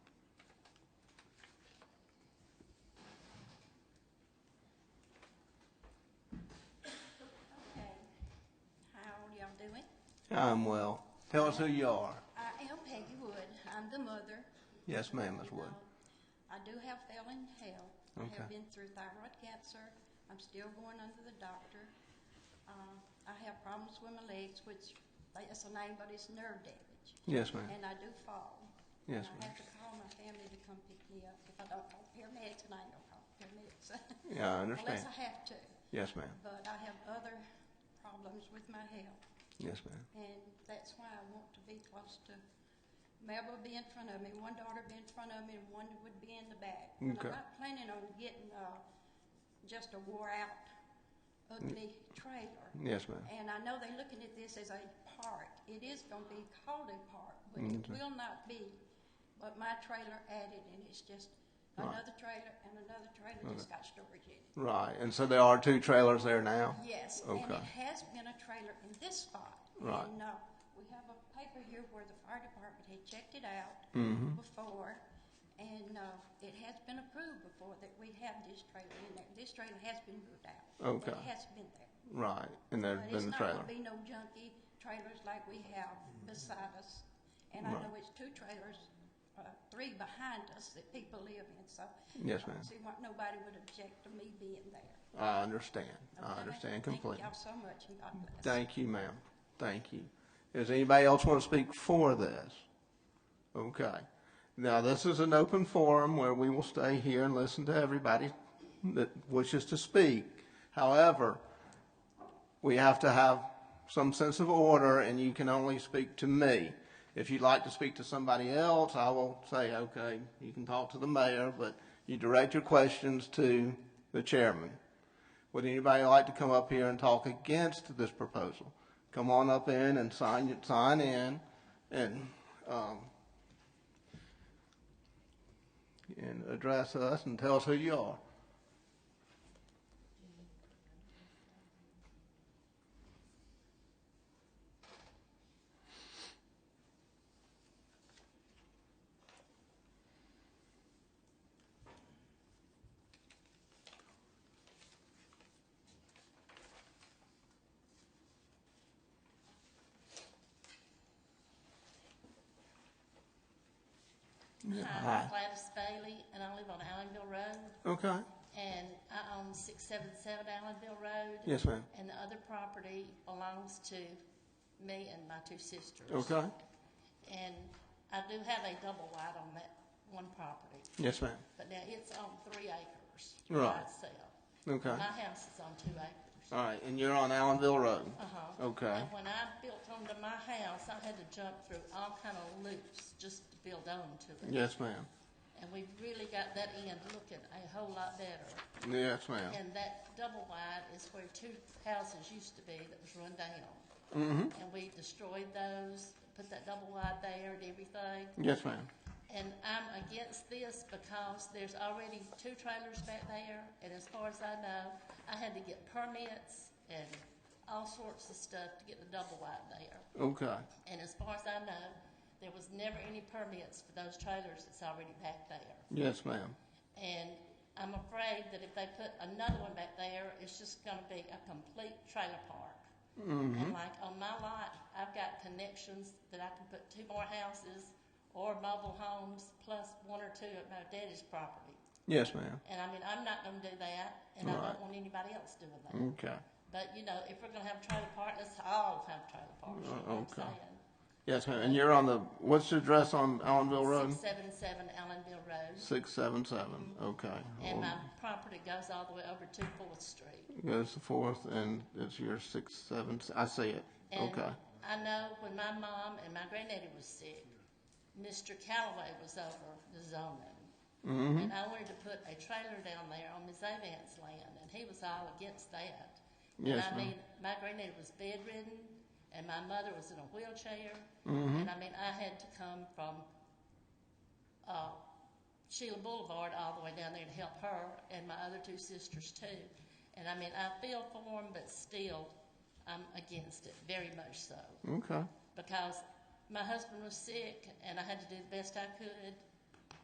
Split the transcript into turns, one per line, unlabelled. I'm well. Tell us who you are.
I am Peggy Wood. I'm the mother.
Yes, ma'am, Ms. Wood.
I do have failing health. I
Okay.
have been through thyroid cancer. I'm still going under the doctor. Uh, I have problems with my legs, which that's a name, but it's nerve damage.
Yes, ma'am.
And I do fall.
Yes,
And I
ma'am.
have to call my family to come pick me up. If I don't call paramedics, and I ain't gonna call paramedics.
Yeah, I understand.
Unless I have to.
Yes, ma'am.
But I have other problems with my health.
Yes, ma'am.
And that's why I want to be close to, Mabel would be in front of me, one daughter would be in front of me, and one would be in the back. And
Okay.
I'm not planning on getting, uh, just a wore-out ugly trailer.
Yes, ma'am.
And I know they're looking at this as a park. It is gonna be called a park, but it
Okay.
will not be. But my trailer added, and it's just
Right.
another trailer and another trailer just got storage in it.
Right. And so there are two trailers there now?
Yes, and
Okay.
it has been a trailer in this spot.
Right.
And, uh, we have a paper here where the fire department had checked it out
Mm-hmm.
before, and, uh, it has been approved before that we have this trailer in there. This trailer has been moved out. but
Okay.
It has been there.
Right. And there's
But
been the
It's
trailer.
not gonna be no junky trailers like we have beside us. And I
Right.
know it's two trailers, uh, three behind us that people live in, so.
Yes,
I
ma'am.
don't see why nobody would object to me being there.
I understand. I
Okay?
understand completely.
Thank y'all so much, and God bless.
Thank you, ma'am. Thank you. Does anybody else want to speak for this? Okay. Now, this is an open forum where we will stay here and listen to everybody that wishes to speak. However, we have to have some sense of order, and you can only speak to me. If you'd like to speak to somebody else, I will say, okay, you can talk to the mayor, but you direct your questions to the chairman. Would anybody like to come up here and talk against this proposal? Come on up in and sign, sign in and, um, and address us and tell us who you are. Ah.
Hi, I'm Gladys Bailey, Um, and I live on Allenville Road,
Okay.
and I own six seven seven Allenville Road.
Yes, ma'am.
And the other property belongs to me and my two sisters.
Okay.
And I do have a double wide on that one property,
Yes, ma'am.
but now it's on three acres. by
Right.
itself.
Okay.
My house is on two acres.
All right. And you're on Allenville Road.
Uh-huh.
Okay.
And when I built onto my house, I had to jump through all kind of loops just to build onto it.
Yes, ma'am.
And we've really got that end looking a whole lot better.
Yes, ma'am.
And that double wide is where two houses used to be that was run down. And we destroyed those, put that double wide there and everything.
Yes, ma'am.
And I'm against this because there's already two trailers back there, and as far as I know, I had to get permits and all sorts of stuff to get the double wide there.
Okay.
And as far as I know, there was never any permits for those trailers that's already back there.
Yes, ma'am.
And I'm afraid that if they put another one back there, it's just gonna be a complete trailer park.
Mm-hmm.
And like on my lot, I've got connections that I can put two more houses or mobile homes plus one or two at my daddy's property.
Yes, ma'am.
And I mean, I'm not gonna do that, and I
Right.
don't want anybody else doing that.
Okay.
But you know, if we're gonna have trailer park, let's all have trailer parks, you know what
Uh, okay.
I'm saying?
Yes, ma'am. And you're on the, what's the address on Allenville Road?
Six seven seven Allenville Road,
Six seven seven. Okay.
and my
Um,
property goes all the way over to Fourth Street.
goes to fourth, and it's your six, seven. s- I see it.
And
Okay.
I know when my mom and my granddaddy was sick, Mr. Callaway was over the zoning.
Mm-hmm.
And I wanted to put a trailer down there on Ms. Avant's land, and he was all against that.
Yes,
And I
ma'am.
mean, my granddaddy was bedridden, and my mother was in a wheelchair.
Mm-hmm.
And I mean, I had to come from uh, Sheila Boulevard all the way down there to help her and my other two sisters too. And I mean, I feel for them, but still, I'm against it very much so
Okay.
because my husband was sick and I had to do the best I could.